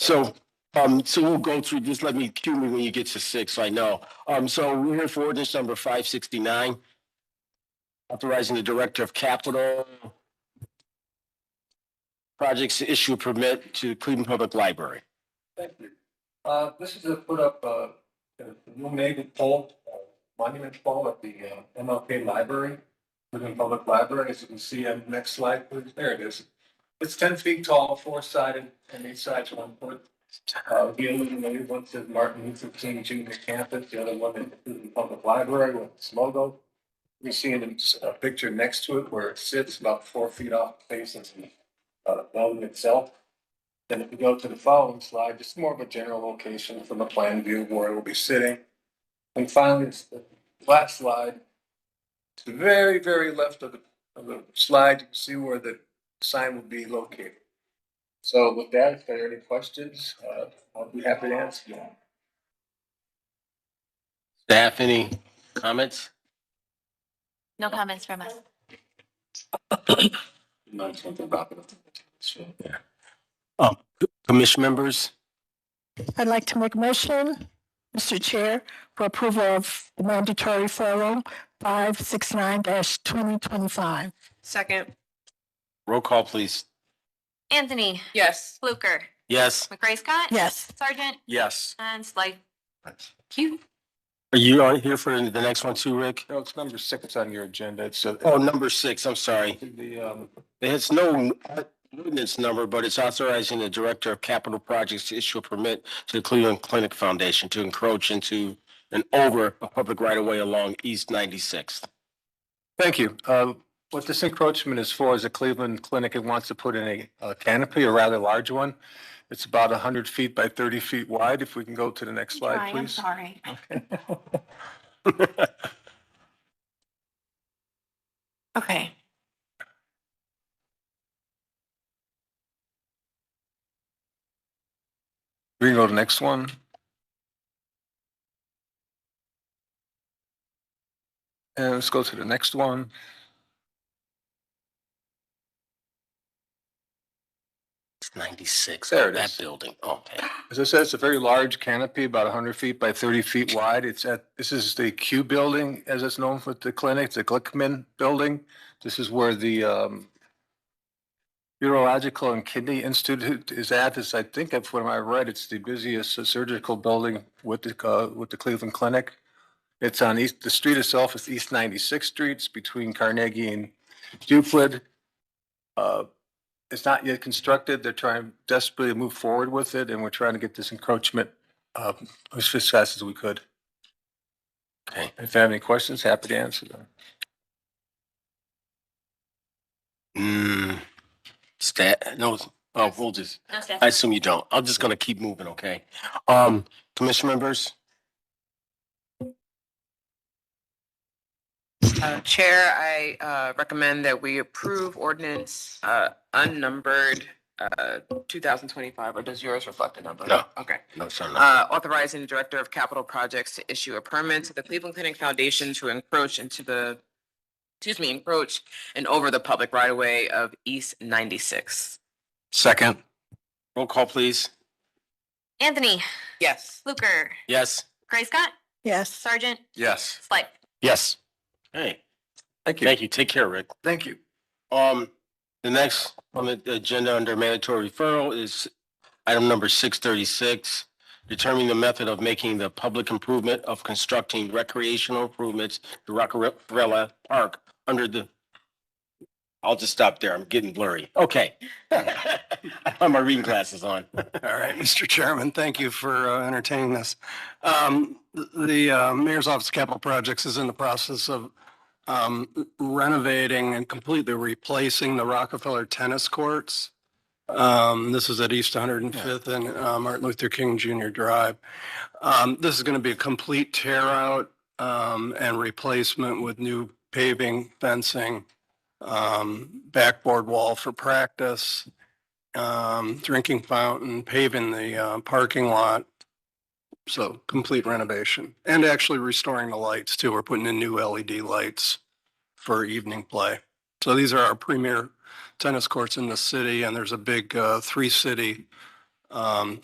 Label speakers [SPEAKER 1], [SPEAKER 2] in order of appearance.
[SPEAKER 1] So, um, so we'll go through, just let me, cue me when you get to six, so I know. Um, so we're here for ordinance number five sixty-nine. Authorizing the Director of Capital Projects to issue a permit to Cleveland Public Library.
[SPEAKER 2] Thank you. Uh, this is to put up, uh, the new naval pole, uh, monument pole at the, uh, MLK Library, Cleveland Public Library, as you can see on the next slide, please, there it is. It's ten feet tall, four-sided, and each side's one foot. Uh, we illuminated, one says Martin Luther King Junior campus, the other one is Cleveland Public Library with its logo. You see in a picture next to it where it sits, about four feet off the face of the, uh, building itself. Then if we go to the following slide, just more of a general location from a plan view of where it will be sitting. And finally, it's the last slide. To the very, very left of the, of the slide, you can see where the sign will be located. So with that, if there are any questions, uh, I'll be happy to answer them.
[SPEAKER 1] Staff, any comments?
[SPEAKER 3] No comments from us.
[SPEAKER 2] Learn something about it. So-
[SPEAKER 1] Commission members,
[SPEAKER 4] I'd like to make a motion, Mr. Chair, for approval of the mandatory forum five six nine twenty twenty-five.
[SPEAKER 5] Second,
[SPEAKER 1] roll call, please.
[SPEAKER 3] Anthony
[SPEAKER 5] yes.
[SPEAKER 3] Fluker,
[SPEAKER 1] Yes.
[SPEAKER 3] McRae Scott.
[SPEAKER 4] Yes,
[SPEAKER 3] Sergeant
[SPEAKER 1] Yes.
[SPEAKER 3] and Slide. Q.
[SPEAKER 1] Are you on here for the next one too, Rick?
[SPEAKER 2] No, it's number six on your agenda. It's
[SPEAKER 1] Oh,
[SPEAKER 2] uh,
[SPEAKER 1] number six, I'm sorry.
[SPEAKER 2] the, um,
[SPEAKER 1] It's no ordinance number, but it's authorizing the Director of Capital Projects to issue a permit to the Cleveland Clinic Foundation to encroach into and over a public right-of-way along East 96th.
[SPEAKER 2] Thank you. Uh, What this encroachment is for is a Cleveland clinic that wants to put in a- a canopy, a rather large one. It's about 100 feet by 30 feet wide. If we can go to the next slide, please.
[SPEAKER 3] sorry. Okay.
[SPEAKER 2] We can go to the next one. And let's go to the next one.
[SPEAKER 1] It's 96.
[SPEAKER 2] There it
[SPEAKER 1] That
[SPEAKER 2] is.
[SPEAKER 1] building, okay.
[SPEAKER 2] As I said, it's a very large canopy, about hundred feet by thirty feet wide. It's at, this is the Q building, as it's known for the clinic, the Glickman Building. This is where the um Urological and Kidney Institute is at. This, I think, if what I read, it's the busiest surgical building with the uh, with the Cleveland Clinic. It's on east, the street itself is East Ninety-Sixth Street, it's between Carnegie and Duplin. Uh, it's not yet constructed. They're trying desperately to move forward with it, and we're trying to get this encroachment uh, as fast as we could.
[SPEAKER 1] Okay.
[SPEAKER 2] If you have any questions, happy to answer them.
[SPEAKER 1] Hmm. Stat, no, oh, we'll just,
[SPEAKER 3] No
[SPEAKER 1] I
[SPEAKER 3] staff.
[SPEAKER 1] assume you don't. I'm just gonna keep moving, okay? Um, commission members,
[SPEAKER 5] Uh, Chair, I, uh, recommend that we approve ordinance, uh, unnumbered, uh, two thousand twenty-five, or does yours reflect a number?
[SPEAKER 1] No.
[SPEAKER 5] Okay.
[SPEAKER 1] no, sorry. no.
[SPEAKER 5] Uh, authorizing the Director of Capital Projects to issue a permit to the Cleveland Clinic Foundation to encroach into the, excuse me, encroach and over the public right-of-way of East ninety-six.
[SPEAKER 1] Second. Roll call, please.
[SPEAKER 3] Anthony
[SPEAKER 5] Yes.
[SPEAKER 3] Fluker,
[SPEAKER 1] Yes.
[SPEAKER 3] McRae Scott,
[SPEAKER 4] yes,
[SPEAKER 3] Sergeant
[SPEAKER 2] Yes.
[SPEAKER 3] Slide.
[SPEAKER 1] Yes. Hey,
[SPEAKER 2] Thank you.
[SPEAKER 1] thank you. Take care, Rick.
[SPEAKER 2] Thank you.
[SPEAKER 1] Um, the next on the agenda under mandatory referral is item number six thirty-six. Determining the method of making the public improvement of constructing recreational improvements to Rockefeller Park under the. I'll just stop there. I'm getting blurry. Okay. I have my reading glasses on.
[SPEAKER 6] All right, Mr. Chairman, thank you for uh, entertaining this. Um, th- The uh, Mayor's Office of Capital Projects is in the process of um, renovating and completely replacing the Rockefeller tennis courts. Um, This is at East 105th and uh, Martin Luther King Jr. Drive. Um, This is going to be a complete tear out um, and replacement with new paving, fencing, um, backboard wall for practice, um, drinking fountain, paving the, uh, parking lot. So complete renovation and actually restoring the lights too. We're putting in new LED lights for evening play. So these are our premier tennis courts in the city and there's a big, uh, three city, um,